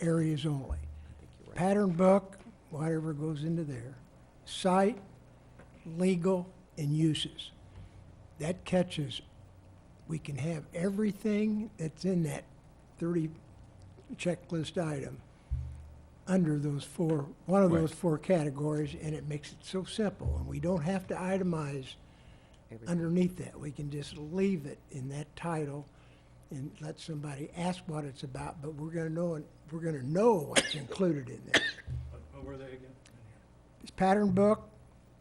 areas only. Pattern book, whatever goes into there, site, legal, and uses. That catches, we can have everything that's in that thirty checklist item under those four, one of Right. those four categories, and it makes it so simple, and we don't have to itemize underneath that. We can just leave it in that title and let somebody ask what it's about, but we're gonna know, it- we're gonna know what's included in there. What were they again? It's pattern book,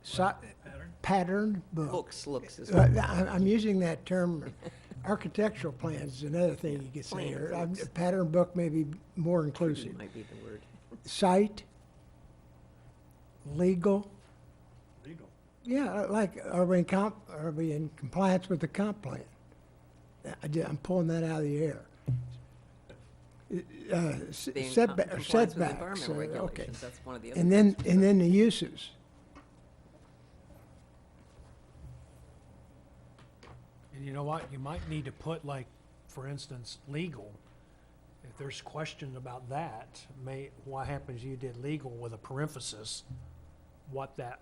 so, Pattern? pattern book. Looks, looks is Uh, I- I'm using that term, architectural plans is another thing you could say here. Plans, Um, Pattern book may be more inclusive. might be the word. Site, legal, Legal. Yeah, like, are we in comp, are we in compliance with the comp plan? I ju- I'm pulling that out of the air. Uh, s- Being in com- setba- compliance with Setbacks, uh, environmental okay. regulations, that's one of the other. And then, and then the uses. And you know what, you might need to put like, for instance, legal. If there's question about that, may, what happens, you did legal with a parenthesis, what that,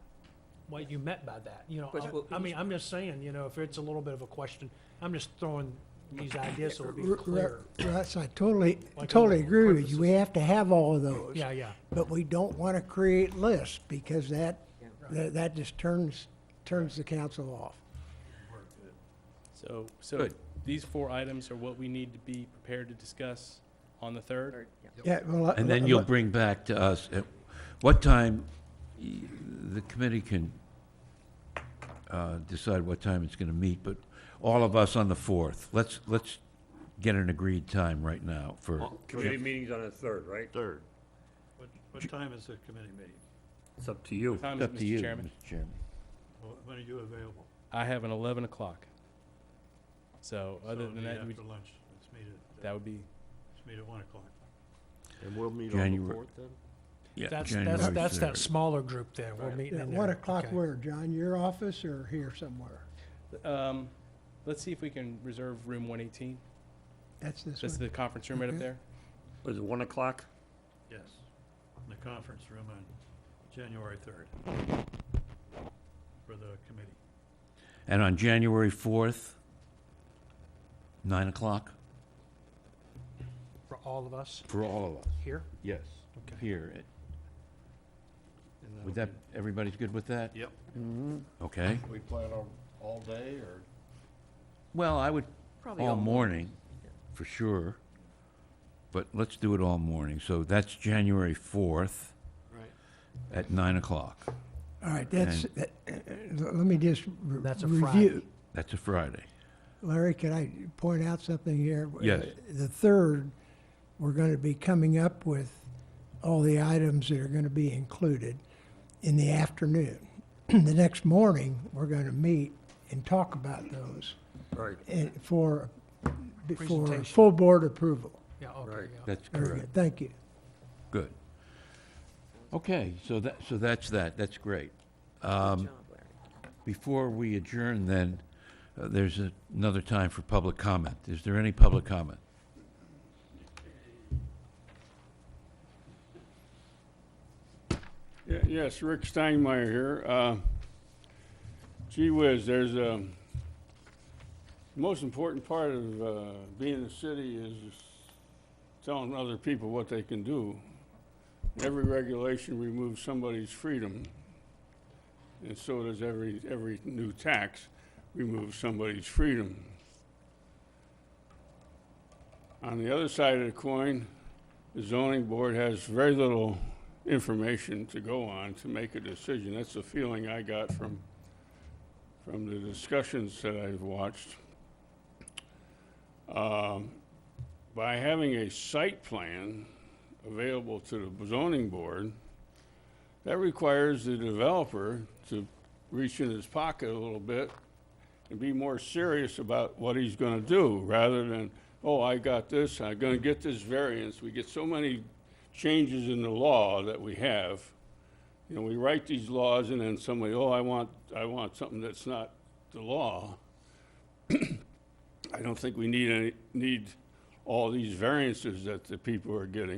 what you meant by that, you know? Which I- will- I mean, I'm just saying, you know, if it's a little bit of a question, I'm just throwing these ideas so it'll be R- r- clear. Russ, I totally, Like totally on agree with you. purposes. We have to have all of those. Yeah, yeah. But we don't want to create lists because that, Yeah. that that just turns, turns the council off. So, so Good. these four items are what we need to be prepared to discuss on the third? Or- yeah. Yeah, well. And then you'll bring back to us, at what time y- the committee can uh, decide what time it's going to meet, but all of us on the 4th, let's, let's get an agreed time right now for, Committee meeting's on the third, right? Third. What, what time is the committee meeting? It's up to you. What time it's is up it, to Mr. you, Chairman? Mr. Chairman. Wh- When are you available? I have an eleven o'clock. So other So it'd than be that, we- After lunch, let's meet at, uh, that would be, let's meet at one o'clock. And we'll meet on the January- then? Yeah, That's, that's, January that's that 3rd. smaller group there, we're Right. meeting Yeah, in there. One o'clock okay. where, John? Your office or here somewhere? um, let's see if we can reserve room one eighteen. That's this one? That's the conference room right up Okay. there. Was it one o'clock? Yes, in the conference room on January third for the committee. And on January 4th, 9 o'clock For all of us for all of us, here? yes, Okay. here. And that'll Would that, be- everybody's good with that? Mm-hmm. Yep. Okay. We plan on all day or? Well, I would Probably all all morning, for sure. But let's do it all morning. So that's January 4th Right. at 9 o'clock. All right, that's, that- uh, let me just re- That's a review. Friday. That's a Friday. Larry, can I point out something here? Uh, Yes. The third, we're going to be coming up with all the items that are going to be included in the afternoon. The next morning, we're going to meet and talk about those Right. and for, for Presentation. full board approval. Yeah, okay, Right. yeah. That's Very correct. good, thank you. Good. Okay, so that, so that's that. That's great. Good job, Larry. Before we adjourn then, uh, there's a- another time for public comment. Is there any public comment? Ye- Yes, Rick Steinmeier here. Uh, Gee whiz, there's a, most important part of uh, being a city is telling other people what they can do. Every regulation removes somebody's freedom, and so does every, every new tax removes somebody's freedom. On the other side of the coin, the zoning board has very little information to go on to make a decision. That's the feeling I got from, from the discussions that I've watched. Um, By having a site plan available to the zoning board, that requires the developer to reach in his pocket a little bit and be more serious about what he's gonna do, rather than, oh, I got this, I'm gonna get this variance. We get so many changes in the law that we have. You know, we write these laws and then somebody, oh, I want, I want something that's not the law. I don't think we need any, need all these variances that the people are getting.